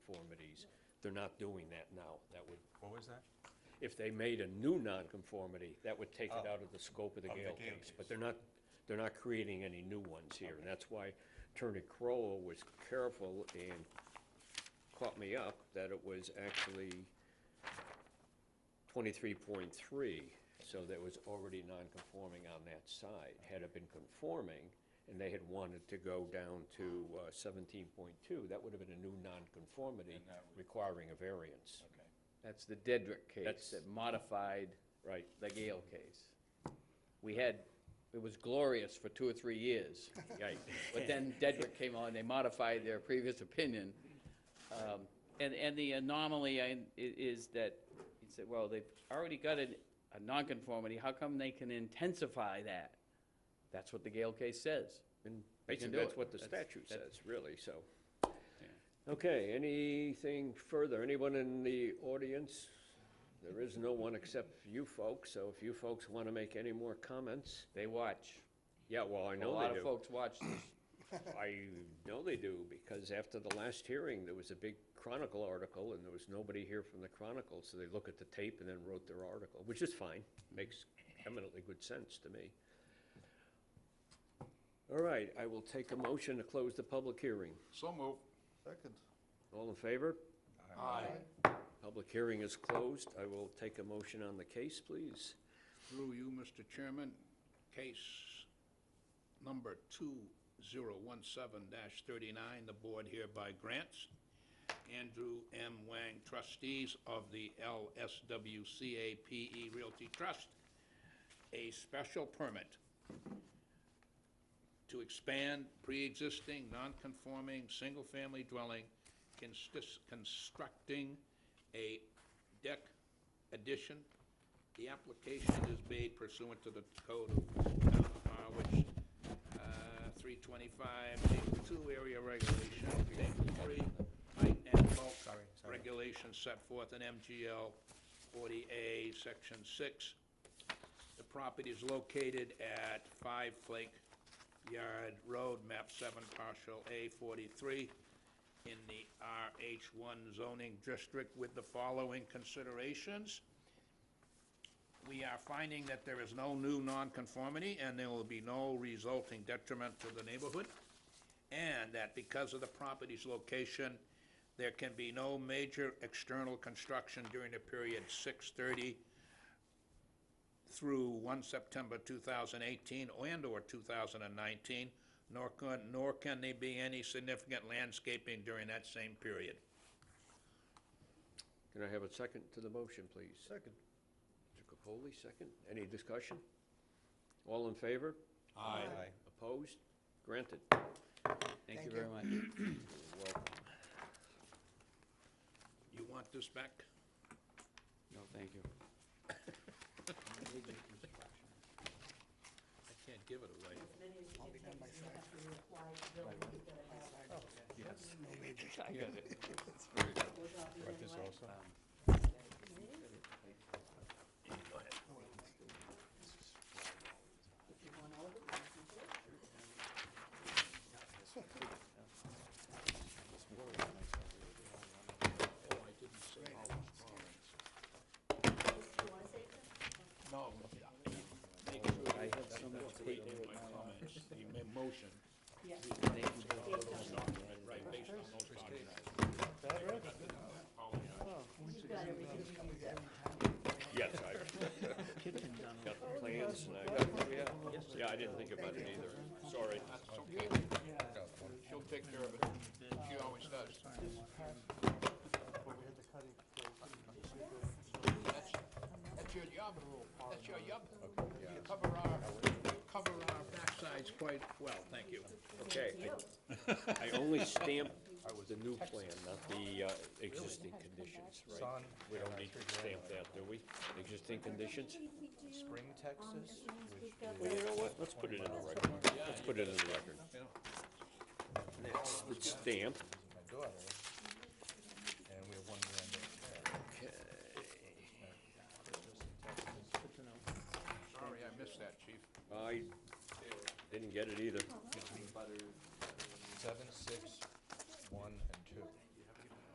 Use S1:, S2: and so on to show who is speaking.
S1: They're not doing that now. That would,
S2: What was that?
S1: if they made a new nonconformity, that would take it out of the scope of the
S2: Oh. Of the
S1: Gale
S2: Gale
S1: case.
S2: case.
S1: But they're not, they're not creating any new ones here. And that's why Attorney Crowell was careful and caught me up that it was actually twenty-three point three, so that was already nonconforming on that side. Had it been conforming, and they had wanted to go down to uh, seventeen point two, that would have been a new nonconformity
S2: And that would-
S1: requiring a variance.
S2: Okay.
S3: That's the Dedrick
S1: That's-
S3: case that modified
S1: Right,
S3: the Gale case. We had, it was glorious for two or three years,
S1: right.
S3: but then Dedrick came on, they modified their previous opinion. Um, And, and the anomaly I- i- is that, he said, well, they've already got a, a nonconformity, how come they can intensify that? That's what the Gale case says.
S1: And
S3: We can
S1: Basically,
S3: do
S1: that's
S3: it.
S1: what the
S3: That's-
S1: statute
S3: that-
S1: says, really, so. Okay, anything further? Anyone in the audience? There is no one except you folks, so if you folks want to make any more comments,
S3: They watch.
S1: yeah, well, I
S3: A
S1: know
S3: lot
S1: they
S3: of
S1: do.
S3: folks watch this.
S1: I know they do, because after the last hearing, there was a big Chronicle article, and there was nobody here from the Chronicle, so they look at the tape and then wrote their article, which is fine, makes eminently good sense to me. All right, I will take a motion to close the public hearing.
S4: So move.
S5: Second.
S1: All in favor?
S4: Aye.
S1: Public hearing is closed. I will take a motion on the case, please.
S4: Through you, Mr. Chairman, case number 2017-39, the board hereby grants Andrew M. Wang, trustees of the LSWCAPE E Realty Trust, a special permit to expand pre-existing, non-conforming, single-family dwelling, constis- constructing a deck addition. The application is made pursuant to the code of Town of Harwich, uh, three twenty-five, table two, area regulation, table three, height and bulk
S2: Sorry, sorry.
S4: regulations set forth in MGL forty A, section six, the property is located at Five Flake Yard Road, map seven, partial A forty-three, in the RH one zoning district with the following considerations. We are finding that there is no new nonconformity, and there will be no resulting detriment to the neighborhood, and that because of the property's location, there can be no major external construction during the period six thirty through 1 September 2018 and/or 2019, nor can, nor can there be any significant landscaping during that same period.
S1: Can I have a second to the motion, please?
S5: Second.
S1: Mr. Capoli, second. Any discussion? All in favor?
S2: Aye.
S1: Opposed? Granted.
S3: Thank you
S5: Thank
S3: very
S5: you.
S3: much.
S4: You want this back?
S3: No, thank you.
S4: I can't give it away.
S2: Right, this also?
S1: Um,
S4: Oh, I didn't say all the drawings. No. Make sure you have that date in my comments, the mo- motion. Right, based on those documents.
S1: Yes, I got the plans and I got, yeah, I didn't think about it either. Sorry.
S4: That's okay. She'll take care of it. She always does. That's that's your job. That's your job. You cover our, you cover our backsides quite well, thank you.
S1: Okay. I I only stamped the new plan, not the uh, existing conditions, right?
S2: Son,
S1: We don't need to stamp that, do we? Existing conditions?
S2: um, Spring, Texas, which
S1: Well, you know what? Let's put it in the record. Let's put it in the record. Next, it's stamped.
S2: is my daughter. And we have one granddaughter.
S4: Sorry, I missed that, chief.
S1: I didn't get it either.